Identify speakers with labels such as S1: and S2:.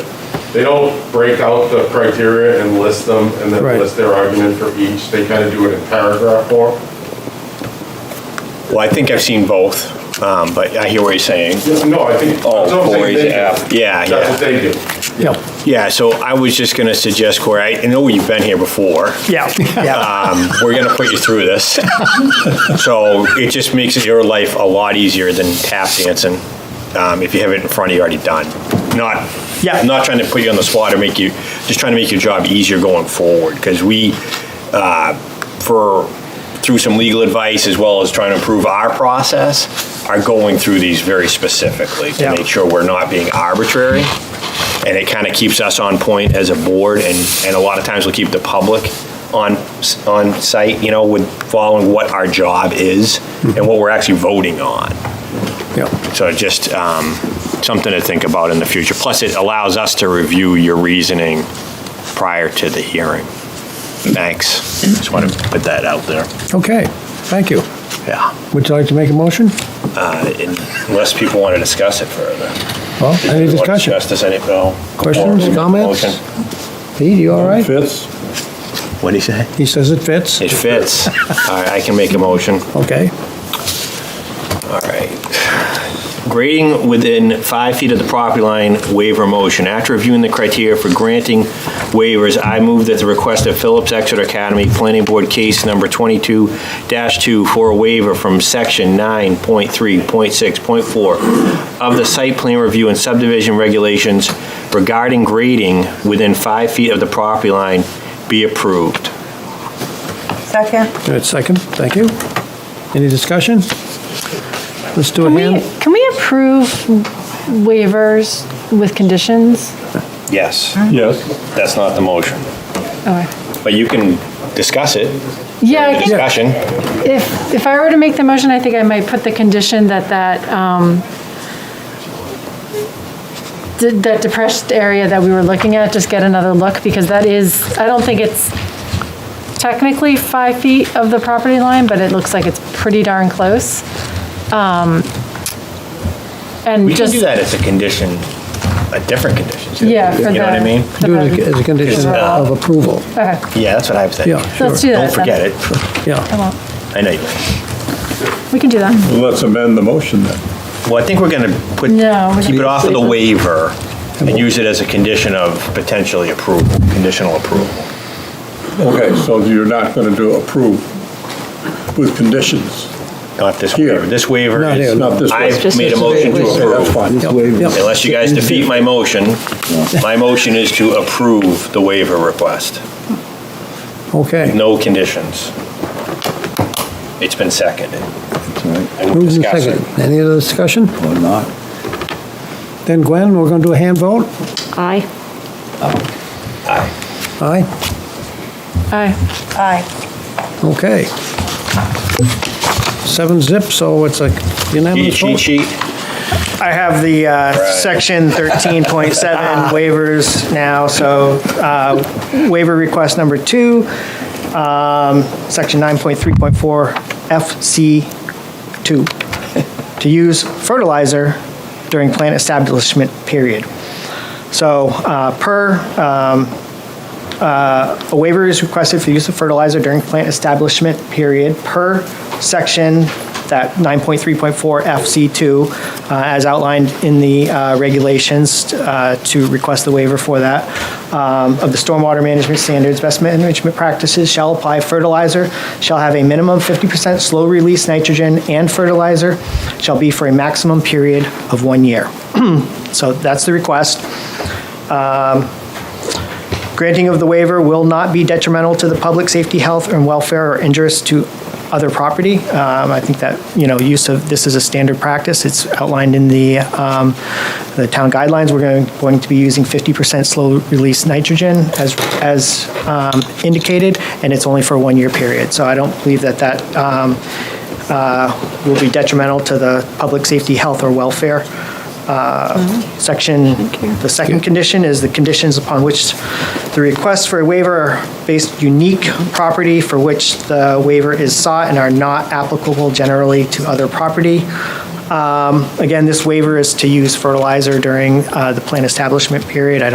S1: They don't break out the criteria and list them and then
S2: Right.
S1: list their argument for each. They kind of do it in paragraph form.
S3: Well, I think I've seen both, um, but I hear what you're saying.
S1: Yeah, No, I think, that's
S4: Oh,
S1: what I'm saying,
S4: boys,
S1: they do.
S4: yeah.
S3: Yeah,
S1: That's what
S3: yeah.
S1: they do.
S2: yeah,
S3: Yeah, so I was just gonna suggest, Corey, I I know you've been here before.
S2: yeah, yeah.
S3: Um, we're gonna put you through this. So it just makes your life a lot easier than tap dancing, um, if you have it in front of you already done. Not,
S2: Yeah.
S3: not trying to put you on the spot or make you, just trying to make your job easier going forward, because we, uh, for, through some legal advice as well as trying to improve our process, are going through these very specifically to
S2: Yeah.
S3: make sure we're not being arbitrary. And it kind of keeps us on point as a board and, and a lot of times we'll keep the public on, s- on site, you know, with following what our job is and what we're actually voting on.
S2: yeah.
S3: So just um, something to think about in the future. Plus, it allows us to review your reasoning prior to the hearing. Thanks. Just want to put that out there.
S2: Okay, thank you.
S3: Yeah.
S2: Would you like to make a motion?
S3: Uh, and Unless people want to discuss it further.
S2: Well, any
S3: People want to
S2: discussion?
S3: Discuss this, any, no?
S2: Questions,
S3: Or-
S2: comments?
S3: motion?
S2: Pete, you all right?
S5: Fits?
S3: What'd he say?
S2: He says it fits.
S3: It fits. All right, I can make a motion.
S2: Okay,
S3: All right. Grading within five feet of the property line waiver motion. After reviewing the criteria for granting waivers, I move that the request of Phillips Exeter Academy Planning Board Case Number 22-2 for a waiver from Section 9.3.6.4 of the Site Plan Review and Subdivision Regulations regarding grading within five feet of the property line be approved.
S6: Second.
S2: good, second, thank you. Any discussion? Let's do a
S7: Can
S2: hand.
S7: we, can we approve waivers with conditions?
S3: Yes,
S5: Yes.
S3: that's not the motion,
S7: Okay.
S3: but you can discuss it,
S7: Oh, Yeah, I think
S3: discussion.
S7: if, if I were to make the motion, I think I might put the condition that that, um, th- that depressed area that we were looking at, just get another look, because that is, I don't think it's technically five feet of the property line, but it looks like it's pretty darn close. Um, And
S3: We can
S7: just.
S3: do that as a condition, a different condition. too.
S7: Yeah, for
S3: You know what I
S7: the-
S3: mean?
S2: Do it as a condition of approval,
S7: Okay,
S3: Yeah, that's what I was thinking.
S2: Yeah,
S7: so let's do that.
S3: Don't forget
S7: then.
S3: it.
S7: I
S2: yeah.
S7: won't.
S3: I know you. will.
S7: We can do that.
S5: Let's amend the motion then.
S3: Well, I think we're going to put,
S7: No, we
S3: keep it
S7: can-
S3: off of the waiver and use it as a condition of potentially approval, conditional approval.
S5: Okay, so you're not going to do approve with conditions?
S3: Not this
S5: Here.
S3: waiver. This waiver
S2: Not
S3: is,
S2: here,
S5: Not this waiver.
S3: I've made a motion to
S5: Okay, that's
S3: approve.
S5: fine.
S2: Yep.
S3: Unless you guys defeat my motion, my motion is to approve the waiver request.
S2: Okay,
S3: No conditions. It's been seconded. And we'll
S2: moved and
S3: discuss it.
S2: seconded. Any other discussion?
S5: Or not?
S2: Then Gwen, we're gonna do a hand vote?
S7: Aye.
S2: Aye?
S7: Aye.
S6: Aye.
S2: Okay. Seven zip, so it's a
S3: Cheat
S2: unanimous
S3: sheet,
S2: vote.
S3: sheet.
S8: I have the uh, section 13.7 waivers now, so uh, waiver request number two, um, section 9.3.4 FC2, to use fertilizer during plant establishment period. So uh, per, um, uh, a waiver is requested for use of fertilizer during plant establishment period per section, that 9.3.4 FC2, uh, as outlined in the uh, regulations uh, to request the waiver for that, um, of the stormwater management standards, best management practices shall apply fertilizer, shall have a minimum 50% slow-release nitrogen and fertilizer, shall be for a maximum period of one year. So that's the request. Granting of the waiver will not be detrimental to the public safety, health, and welfare or injurious to other property. Um, I think that, you know, use of, this is a standard practice. It's outlined in the, um, the town guidelines. We're going, going to be using 50% slow-release nitrogen as, as um, indicated, and it's only for a one-year period. So I don't believe that that um, uh, will be detrimental to the public safety, health, or welfare section, the second condition is the conditions upon which the request for a waiver are based unique property for which the waiver is sought and are not applicable generally to other property. Um, Again, this waiver is to use fertilizer during uh, the plant establishment period. I